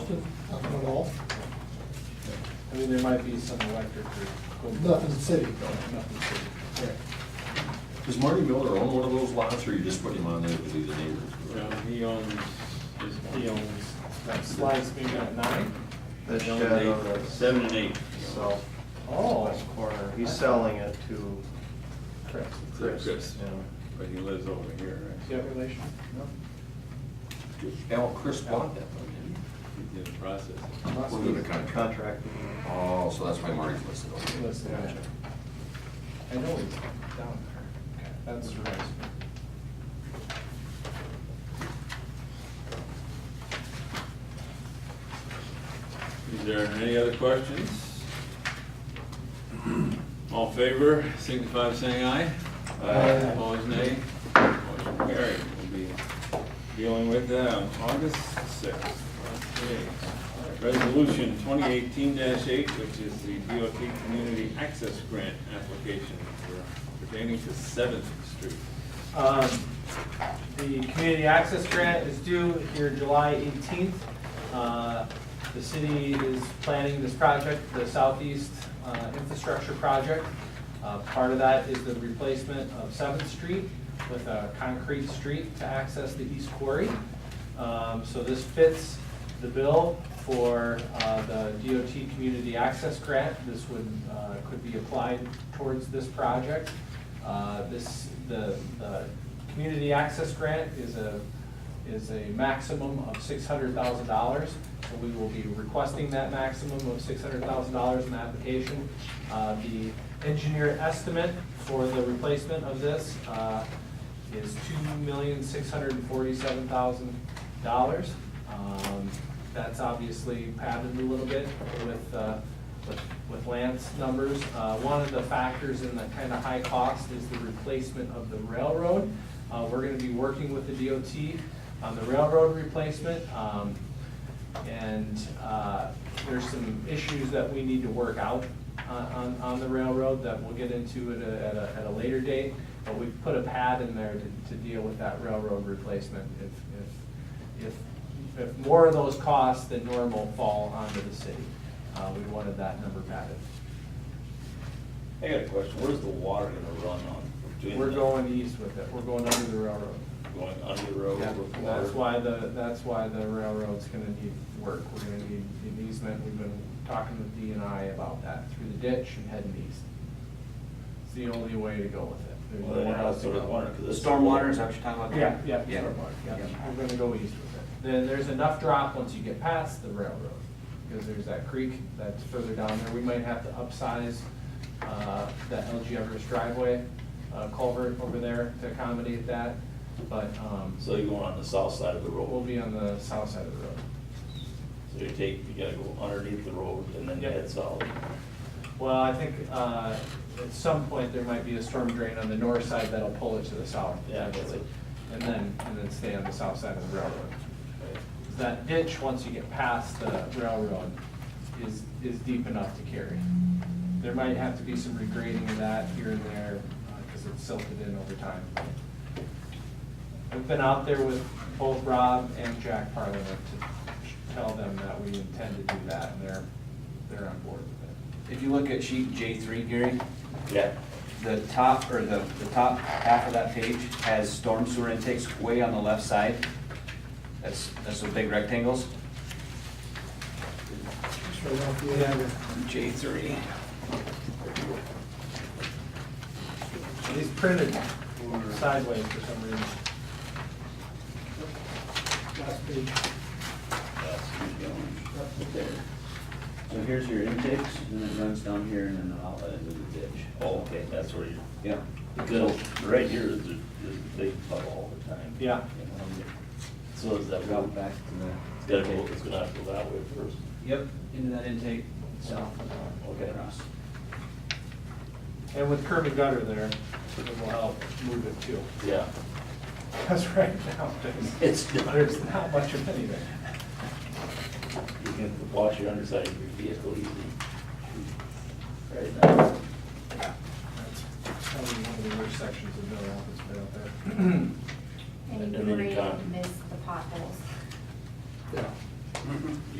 nothing, nothing at all, I mean, there might be some electric or. nothing city. Nothing city. Does Marty Miller own one of those lots, or you just put him on there because he's a neighbor? Well, he owns, he owns, that slide's being at nine? The Seven shed and on eight, the seven and eight. south Oh, west corner, he's selling it to correct. Chris. Chris. yeah. But he lives over here, right? Do you have a relation? Al, Chris bought that one, didn't He's in the process. he? We're doing a contract. Contract. Oh, so that's why Marty's listed over there. Listen, I know it's down there. That surprised me. Is there any other questions? All in favor, signify by saying aye. Aye. Opposed, nay. Motion carried. We'll be dealing with that on August sixth. Resolution twenty eighteen eight, which is the DOT Community Access Grant application for pertaining to Seventh Street. Um, The community access grant is due here July 18th. Uh, The city is planning this project, the Southeast uh, Infrastructure Project. Uh, Part of that is the replacement of 7th Street with a concrete street to access the East Quarry. Um, So this fits the bill for uh, the DOT Community Access Grant. This would, uh, could be applied towards this project. Uh, This, the, the community access grant is a, is a maximum of six hundred thousand dollars. So we will be requesting that maximum of six hundred thousand dollars in the application. Uh, The engineer estimate for the replacement of this uh, is two million, six hundred and forty-seven thousand dollars. Um, That's obviously padded a little bit with, uh, with- with Lance numbers. Uh, One of the factors in the kind of high cost is the replacement of the railroad. Uh, We're going to be working with the DOT on the railroad replacement. um, And uh, there's some issues that we need to work out on- on, on the railroad that we'll get into at a, at a, at a later date. But we put a pad in there to, to deal with that railroad replacement if, if, if, if more of those costs than normal fall onto the city. Uh, we wanted that number padded. I got a question. Where's the water gonna run on? between We're the- going east with it, we're going under the railroad. Going under the road Yeah, with water? That's why the, that's why the railroad's gonna need work, we're gonna need an easement, we've been talking with D and I about that, through the ditch and heading east. It's the only way to go with it, there's Well, then nowhere else to sort go. of water, 'cause The it's- stormwater, is that what you're talking about? Yeah, yeah, Yeah. stormwater, yeah, Yeah. we're gonna go east with it. Then there's enough drop once you get past the railroad, because there's that creek that's further down there. We might have to upsize, uh, that LG Everest driveway, uh, culvert over there to accommodate that, but, um, So you're going on the south side of the road? we'll be on the south side of the road. So you take, you gotta go underneath the road and then Yep. head south. Well, I think, uh, at some point, there might be a storm drain on the north side that'll pull it to the south. Yeah, that's it. potentially, And then, and then stay on the south side of the railroad. Okay. that ditch, once you get past the railroad, is, is deep enough to carry. There might have to be some regrading of that here and there, because it's silted in over time. I've been out there with both Rob and Jack Parliament to tell them that we intend to do that, and they're, they're on board with it. If you look at sheet J three, Gary, Yeah, the top, or the, the top half of that page has storm sewer intakes way on the left side. That's, that's those big rectangles. Just right off the end. J three. These printed sideways for some reason. Last page. that's keep going. So here's your intakes, and it runs down here and then out into the ditch. Oh, okay, that's where you, Yeah. because right here is the, is the big puddle all the time. Yeah. So is that, Go it's back to the. gotta go, it's gonna have to go that way first. Yep, into that intake, south. Okay. Across. And with curb and gutter there, it will help move it too. Yeah. Because right now, there's, It's not, you there's not much of anything. can wash your underside of your vehicle easily. Right now. That's probably one of the worst sections of Mill Rapids, right out there. And And you then you grade can't. miss the potholes. You